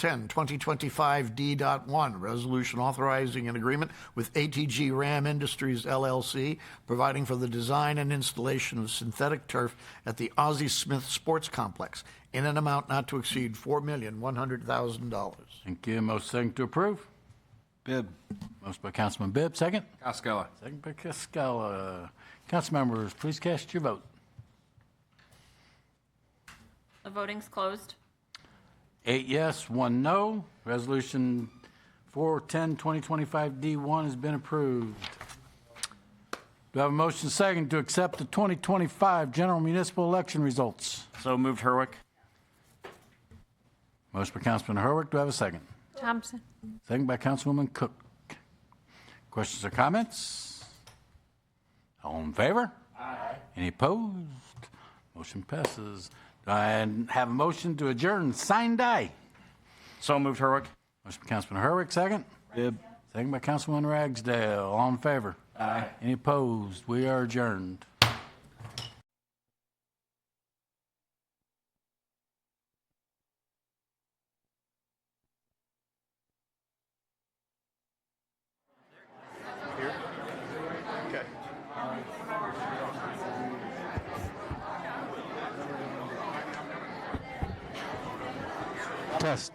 10, 2025 D.1, resolution authorizing an agreement with ATG Ram Industries LLC, providing for the design and installation of synthetic turf at the Ozzie Smith Sports Complex in an amount not to exceed $4,100,000. Thank you. Most second to approve. Bibb. Most by Councilman Bibb, second. Costello. Second by Cascola. Council members, please cast your vote. The voting's closed. Eight yes, one no. Resolution 410-2025-D1 has been approved. Do I have a motion second to accept the 2025 general municipal election results? So moved Herwick. Motion by Councilman Herwick. Do I have a second? Thompson. Second by Councilwoman Cook. Questions or comments? All in favor? Aye. Any opposed? Motion passes. Do I have a motion to adjourn, signed aye. So moved Herwick. Motion by Councilman Herwick, second. Bibb. Second by Councilman Ragsdale. All in favor? Aye. Any opposed? We are adjourned. Test.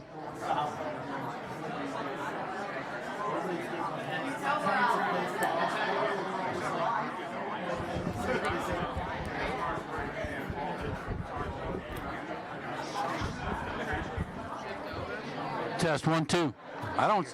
Test one, two. I don't.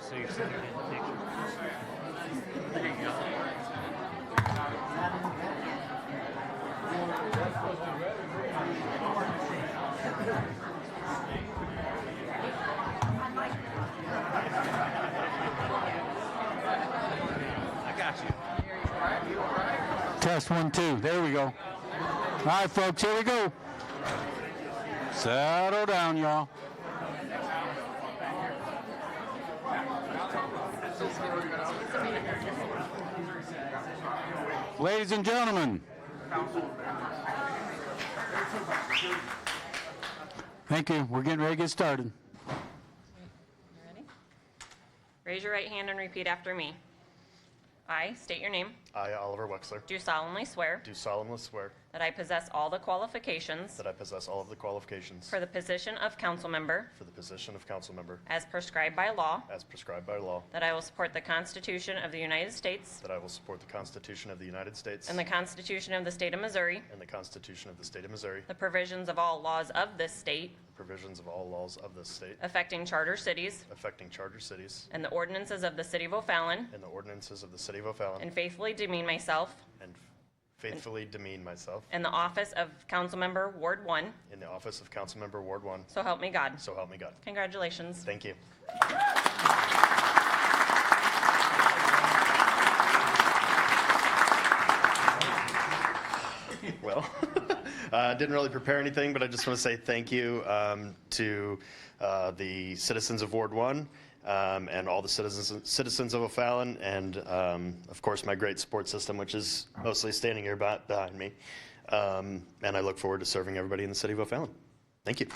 Test one, two. There we go. All right, folks, here we go. Settle down, y'all. Ladies and gentlemen, thank you. We're getting ready to get started. Raise your right hand and repeat after me. I state your name, I, Oliver Wexler, do solemnly swear do solemnly swear that I possess all the qualifications that I possess all of the qualifications for the position of council member for the position of council member as prescribed by law, as prescribed by law, that I will support the Constitution of the United States that I will support the Constitution of the United States and the Constitution of the State of Missouri, and the Constitution of the State of Missouri, the provisions of all laws of this state the provisions of all laws of this state affecting charter cities affecting charter cities and the ordinances of the City of O'Fallon, and the ordinances of the City of O'Fallon, and faithfully demean myself and faithfully demean myself in the office of council member Ward 1, in the office of council member Ward 1, so help me God. so help me God. Congratulations. Thank you. Well, I didn't really prepare anything, but I just want to say thank you um, to uh, the citizens of Ward 1 um, and all the citizens citizens of O'Fallon, and um, of course, my great support system, which is mostly standing here beh- behind me. Um, And I look forward to serving everybody in the city of O'Fallon. Thank you.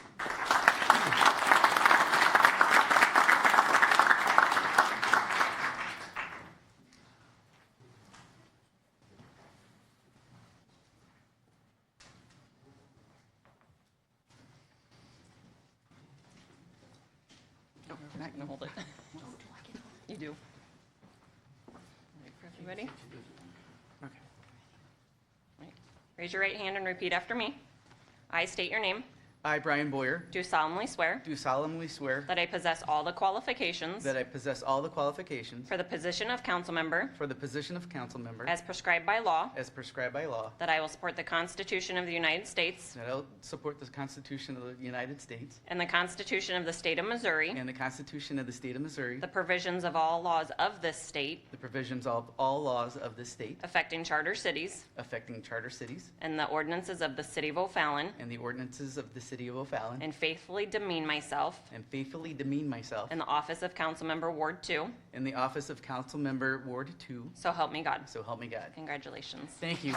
No, we're not gonna hold it. You do. You ready? Okay. Raise your right hand and repeat after me. I state your name, I, Brian Boyer, do solemnly swear do solemnly swear that I possess all the qualifications that I possess all the qualifications for the position of council member for the position of council member as prescribed by law, as prescribed by law, that I will support the Constitution of the United States that I will support the Constitution of the United States and the Constitution of the State of Missouri, and the Constitution of the State of Missouri, the provisions of all laws of this state the provisions of all laws of the state affecting charter cities affecting charter cities, and the ordinances of the City of O'Fallon, and the ordinances of the city of O'Fallon, and faithfully demean myself and faithfully demean myself in the office of Councilmember Ward 2, in the office of council member Ward 2, so help me God. so help me God. Congratulations. Thank you.